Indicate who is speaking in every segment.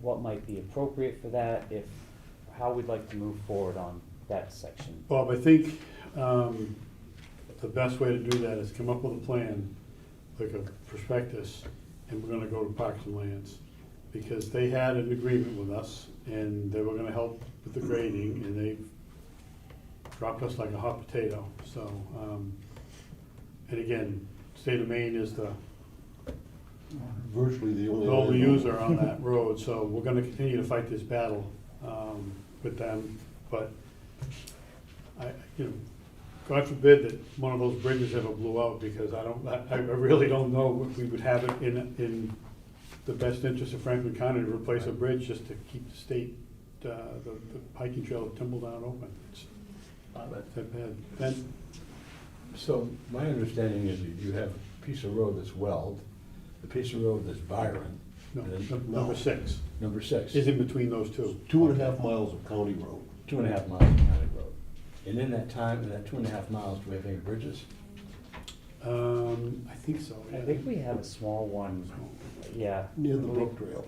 Speaker 1: what might be appropriate for that, if, how we'd like to move forward on that section.
Speaker 2: Bob, I think um, the best way to do that is come up with a plan, like a prospectus, and we're gonna go to Parks and Lands. Because they had an agreement with us, and they were gonna help with the grading, and they dropped us like a hot potato, so. um, And again, state of Maine is the
Speaker 3: virtually the only.
Speaker 2: the only
Speaker 3: landowner.
Speaker 2: user on that road, so we're gonna continue to fight this battle um, with them, but I, you know, God forbid that one of those bridges ever blew out, because I don't, I I really don't know if we would have it in, in the best interest of Franklin County to replace a bridge just to keep the state, uh, the the hiking trail of Timbledown open. It's that bad. Then,
Speaker 3: So my understanding is that you have a piece of road that's Weld, a piece of road that's Byron.
Speaker 2: no,
Speaker 3: and
Speaker 2: num-
Speaker 3: then-
Speaker 2: number six
Speaker 3: Number six.
Speaker 2: is in between those two.
Speaker 4: Two and a half miles of county road.
Speaker 3: Two and a half miles of county road. And in that time, in that two and a half miles, do we have any bridges?
Speaker 2: Um, I think so,
Speaker 1: I
Speaker 2: yeah.
Speaker 1: think we have a small one, yeah.
Speaker 4: Near the brook trail.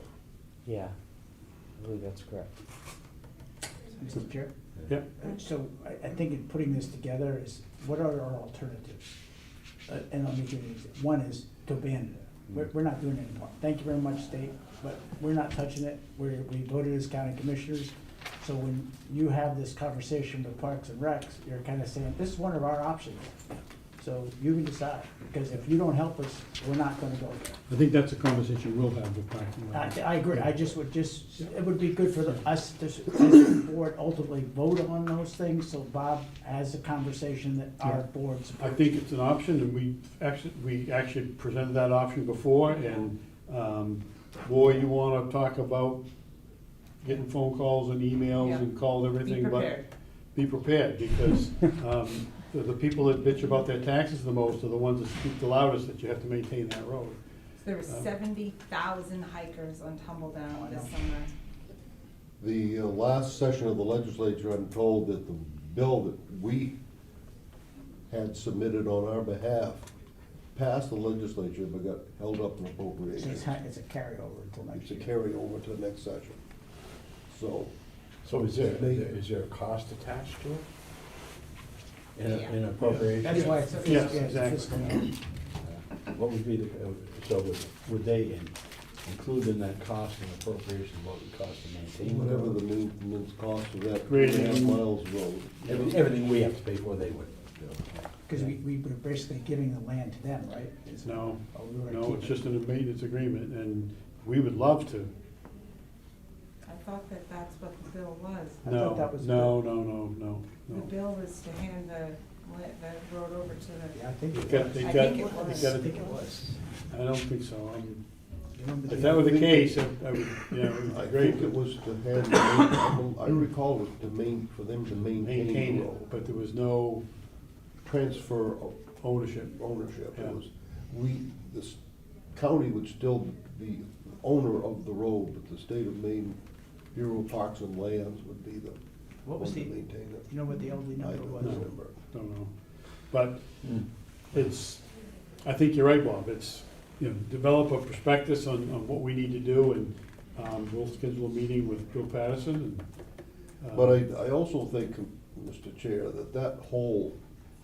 Speaker 1: Yeah, I believe that's correct.
Speaker 5: Mr. Chair,
Speaker 2: Yep.
Speaker 5: so I, I think in putting this together is, what are our alternatives? Uh, And I'll make it easy. One is to abandon it. We're, we're not doing it anymore. Thank you very much, state, but we're not touching it. We're, we voted as county commissioners. So when you have this conversation with Parks and Recs, you're kind of saying, this is one of our options. So you can decide, because if you don't help us, we're not gonna go there.
Speaker 2: I think that's a conversation we'll have with parking
Speaker 5: I,
Speaker 2: lot.
Speaker 5: I agree, I just would just, it would be good for the- us to, s- as a board, ultimately vote on those things, so Bob has a conversation that our
Speaker 2: Yeah.
Speaker 5: board
Speaker 2: I
Speaker 5: supports.
Speaker 2: think it's an option, and we actually, we actually presented that option before, and, um, boy, you wanna talk about getting phone calls and emails and calls, everything, but.
Speaker 6: prepared.
Speaker 2: Be prepared. because, um, the, the people that bitch about their taxes the most are the ones that speak the loudest, that you have to maintain that road.
Speaker 6: There were
Speaker 4: Oh.
Speaker 2: Um,
Speaker 6: seventy thousand hikers on Tumbledown this summer.
Speaker 4: The uh, last session of the legislature, I'm told that the bill that we had submitted on our behalf passed the legislature but got held up in
Speaker 5: So
Speaker 4: appropriations.
Speaker 5: It's, ha- it's a carryover until
Speaker 4: It's
Speaker 5: next
Speaker 4: a
Speaker 5: year.
Speaker 4: carryover to the next session. So,
Speaker 3: So is there,
Speaker 4: They-
Speaker 3: is there a cost attached to it? In a- In appropriation?
Speaker 5: That's why it's a
Speaker 2: Yes,
Speaker 5: fiscal, yeah, it's a
Speaker 2: exactly.
Speaker 5: fiscal year.
Speaker 3: What would be the, uh, so would, would they in- include in that cost and appropriation, what would cost to maintain? the
Speaker 4: whatever
Speaker 3: road?
Speaker 4: the maintenance cost of that two and a half
Speaker 2: Grading.
Speaker 4: miles road.
Speaker 3: Every- Everything we have to pay for, they would.
Speaker 5: Because we, we were basically giving the land to them, right? Is-
Speaker 2: No,
Speaker 5: Oh, we were gonna
Speaker 2: no,
Speaker 5: keep
Speaker 2: it's
Speaker 5: it.
Speaker 2: just an maintenance agreement, and we would love to,
Speaker 6: I thought that that's what the bill was.
Speaker 5: I thought
Speaker 2: no,
Speaker 5: that was
Speaker 2: no, no, no, no,
Speaker 6: The
Speaker 2: no.
Speaker 6: bill was to hand the, la- the road over to
Speaker 5: Yeah, I
Speaker 6: the,
Speaker 5: think
Speaker 2: They
Speaker 5: it
Speaker 2: got,
Speaker 5: was.
Speaker 2: they got,
Speaker 6: I think
Speaker 2: they
Speaker 6: it was.
Speaker 2: got,
Speaker 5: I think it was.
Speaker 2: I don't think so, I'm-
Speaker 5: You remember the-
Speaker 2: If that were the case, I I would, you know, it
Speaker 4: I
Speaker 2: would be
Speaker 4: think it
Speaker 2: great.
Speaker 4: was to have, the main- I recall it to main, for them to maintain
Speaker 2: Maintain
Speaker 4: the road.
Speaker 2: it, but there was no
Speaker 4: transfer of
Speaker 2: ownership.
Speaker 4: ownership.
Speaker 2: Yeah.
Speaker 4: It was, we, this county would still be the owner of the road, but the state of Maine Bureau of Parks and Lands would be the
Speaker 5: What was
Speaker 4: one to
Speaker 5: the-
Speaker 4: maintain it.
Speaker 5: You know what the elderly
Speaker 4: I
Speaker 5: number
Speaker 4: don't
Speaker 5: was?
Speaker 4: remember.
Speaker 2: Don't know. But
Speaker 3: Hmm.
Speaker 2: it's, I think you're right, Bob, it's, you know, develop a prospectus on, on what we need to do, and um, we'll schedule a meeting with Bill Patterson and. uh,
Speaker 4: But I, I also think, Mr. Chair, that that hole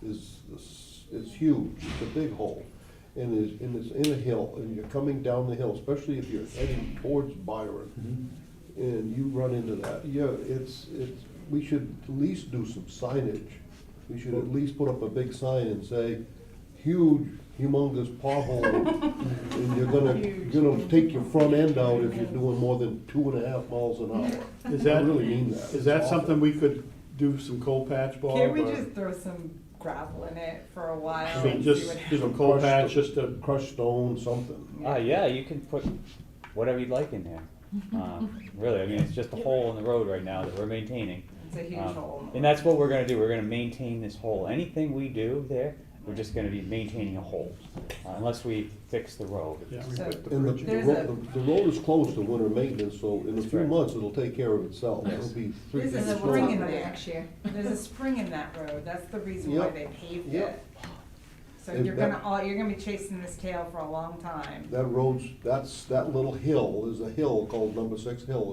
Speaker 4: is, is huge, it's a big hole. And is, and it's in a hill, and you're coming down the hill, especially if you're heading towards Byron. And you run into that, yeah, it's, it's, we should at least do some signage. We should at least put up a big sign and say, huge, humongous pothole. And you're gonna, you're gonna take your front end out if you're doing more than two and a half miles an hour.
Speaker 2: Is that,
Speaker 4: I really mean that.
Speaker 2: is that
Speaker 4: It's awful.
Speaker 2: something we could do some cold patch, Bob?
Speaker 6: can't we
Speaker 2: or-
Speaker 6: just throw some gravel in it for a
Speaker 2: I
Speaker 6: while
Speaker 2: mean,
Speaker 6: and see
Speaker 2: just,
Speaker 6: what
Speaker 2: just
Speaker 6: happens?
Speaker 2: a cold
Speaker 4: Crushed
Speaker 2: patch,
Speaker 4: the-
Speaker 2: just a,
Speaker 4: crushed stone, something.
Speaker 1: Uh, yeah, you can put whatever you'd like in there. Um, Really, I mean, it's just a hole in the road right now that we're maintaining.
Speaker 6: It's a huge
Speaker 1: Um,
Speaker 6: hole. in the
Speaker 1: And
Speaker 6: road.
Speaker 1: that's what we're gonna do, we're gonna maintain this hole. Anything we do there, we're just gonna be maintaining a hole, uh, unless we fix the road.
Speaker 2: yeah.
Speaker 6: So-
Speaker 4: And the, the
Speaker 6: There's
Speaker 4: road, the road is closed to winter maintenance, so in a few
Speaker 1: right.
Speaker 4: months, it'll take care of itself. It'll be three
Speaker 6: This
Speaker 4: feet
Speaker 6: is a
Speaker 4: strong.
Speaker 6: spring in there. There's a spring in that road. That's the reason why
Speaker 4: Yep.
Speaker 6: they paved
Speaker 4: Yep.
Speaker 6: it. So
Speaker 4: Is
Speaker 6: you're
Speaker 4: that-
Speaker 6: gonna, all- you're gonna be chasing this tail for a long time.
Speaker 4: That road's, that's, that little hill is a hill called Number Six Hill.